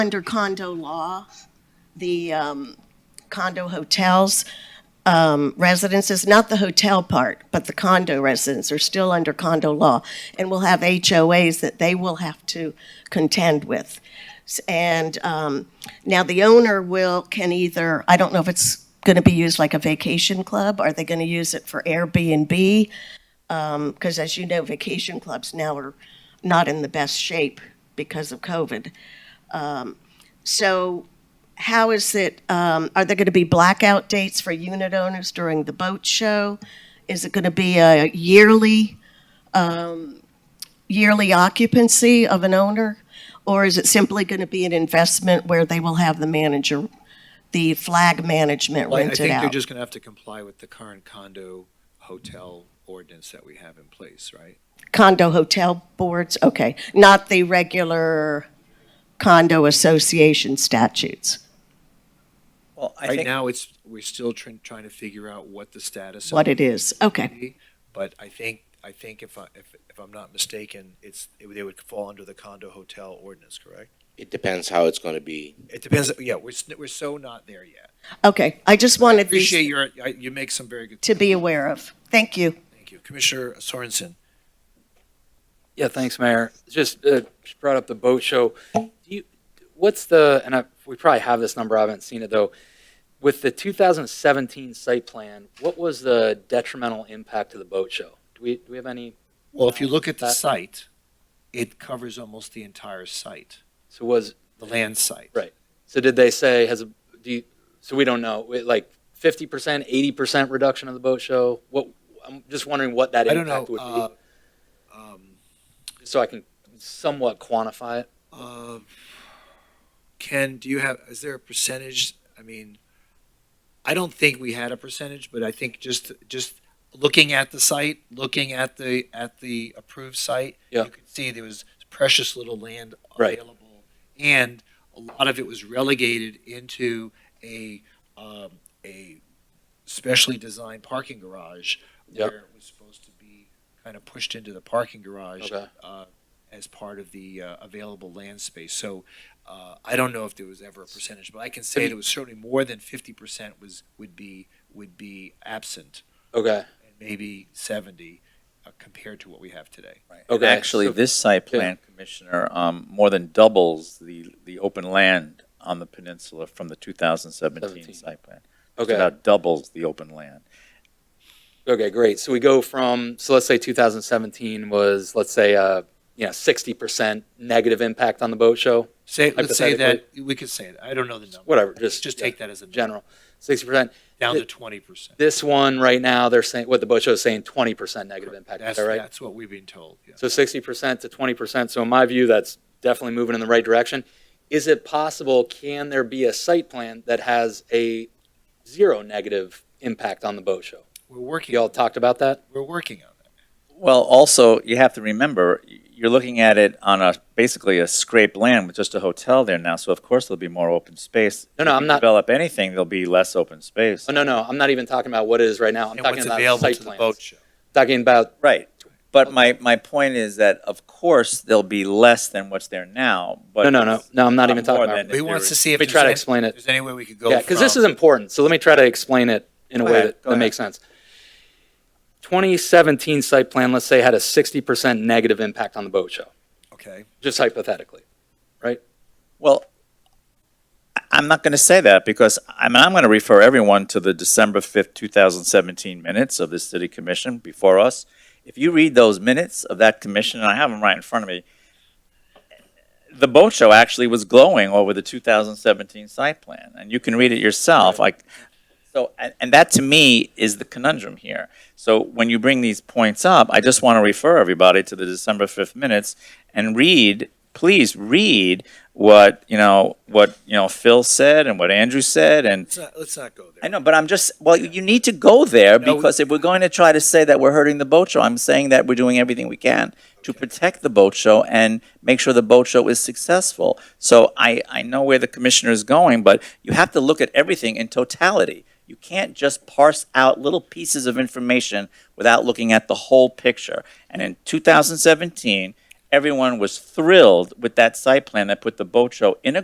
under condo law, the um, condo hotels um, residences, not the hotel part, but the condo residents are still under condo law and will have HOAs that they will have to contend with. S- And um, now the owner will, can either, I don't know if it's going to be used like a vacation club. Are they going to use it for Airbnb? because as you know, vacation clubs now are not in the best shape because of COVID. Um, so, how is it? Um, are there going to be blackout dates for unit owners during the boat show? Is it going to be a yearly um, yearly occupancy of an owner, or is it simply going to be an investment where they will have the manager, the flag management Well, I- rented I think out? they're just going to have to comply with the current condo hotel ordinance that we have in place, right? condo hotel boards, okay, not the regular condo association statutes. Well, I Right think, now, it's, we're still trying, trying to figure out what the status. of What it is, would okay, be, But I think, I think if I, if, if I'm not mistaken, it's, it would- they would fall under the condo hotel ordinance, correct? It depends how it's going to be. It depends, yeah, we're, s- we're so not there yet. okay. I just wanted Appreciate these your, I- you make some very good, to be aware of. Thank you. thank you. Commissioner Sorensen, Yeah, thanks, Mayor. Just uh, just brought up the boat show. Do you, what's the, and I, we probably have this number, I haven't seen it though. With the 2017 site plan, what was the detrimental impact to the boat show? Do we, do we have any, well, if you look at the That- site, it covers almost the entire site, so was, the land site. Right. so did they say, has, a do you, so we don't know, it like 50%, 80% reduction of the boat show? What, I'm just wondering what that I don't impact know, would uh, be, um, so I can somewhat quantify it. Uh, Ken, do you have, is there a percentage? I mean, I don't think we had a percentage, but I think just, just looking at the site, looking at the, at the approved site, Yeah. you could see there was precious little land Right. available. And a lot of it was relegated into a, um, a specially designed parking garage Yep. where it was supposed to be kind of pushed into the parking garage Okay. uh, as part of the uh, available land space. So uh, I don't know if there was ever a percentage, but I can say Have it was certainly more than fifty percent was, would be, would be absent, Okay, and maybe seventy uh, compared to what we have today. and Okay, actually, so- this site plan, Commissioner, um, more than doubles the, the open land on the peninsula from the 2017 Seventeen. site plan. It's okay. About doubles the open land. Okay, great. So we go from, so let's say 2017 was, let's say, uh, you know, 60% negative impact on the boat show, Say, let's say that, we could say it, I don't know the number. whatever, Let's just. just take that as a number, General, 60%. down to twenty percent. This one right now, they're saying, what the boat show is saying, 20% negative impact, is That's, that right? that's what we've been told, yeah. So 60% to 20%. So in my view, that's definitely moving in the right direction. Is it possible, can there be a site plan that has a zero negative impact on the boat show? We're working, Y'all talked about that? we're working on that. Well, also, you have to remember, y- you're looking at it on a, basically a scraped land with just a hotel there now, so of course there'll be more open space. No, no, If I'm you not- Develop anything, there'll be less open space. Oh, no, no, I'm not even talking about what it is right now. I'm And talking what's about available site to the boat plans. show. Talking about Right. But my, my point is that, of course, there'll be less than what's there now, but. No, no, no, no, I'm not Uh, even talking more about. than- But He wants to see if Let me try to there's explain any- it. there's any way we could go Yeah, because this from- is important, so let me try to explain it in a Go way ahead, that, um, Oh, that go ahead. makes sense. 2017 site plan, let's say, had a 60% negative impact on the boat show, Okay. just hypothetically. Well, I- I'm not going to say that because I'm, I'm going to refer everyone to the December 5th, 2017 minutes of the city commission before us. If you read those minutes of that commission, and I have them right in front of me, the boat show actually was glowing over the 2017 site plan, and you can read it yourself, like, so, and, and that to me is the conundrum here. So when you bring these points up, I just want to refer everybody to the December 5th minutes and read, please read what, you know, what, you know, Phil said and what Andrew said and Let's not, let's not go there. I know, but I'm just, well, you need to go there No, we- because if we're going to try to say that we're hurting the boat show, I'm saying that we're doing everything we can to protect the boat show and make sure the boat show is successful. So I, I know where the commissioner is going, but you have to look at everything in totality. You can't just parse out little pieces of information without looking at the whole picture. And in 2017, everyone was thrilled with that site plan that put the boat show in a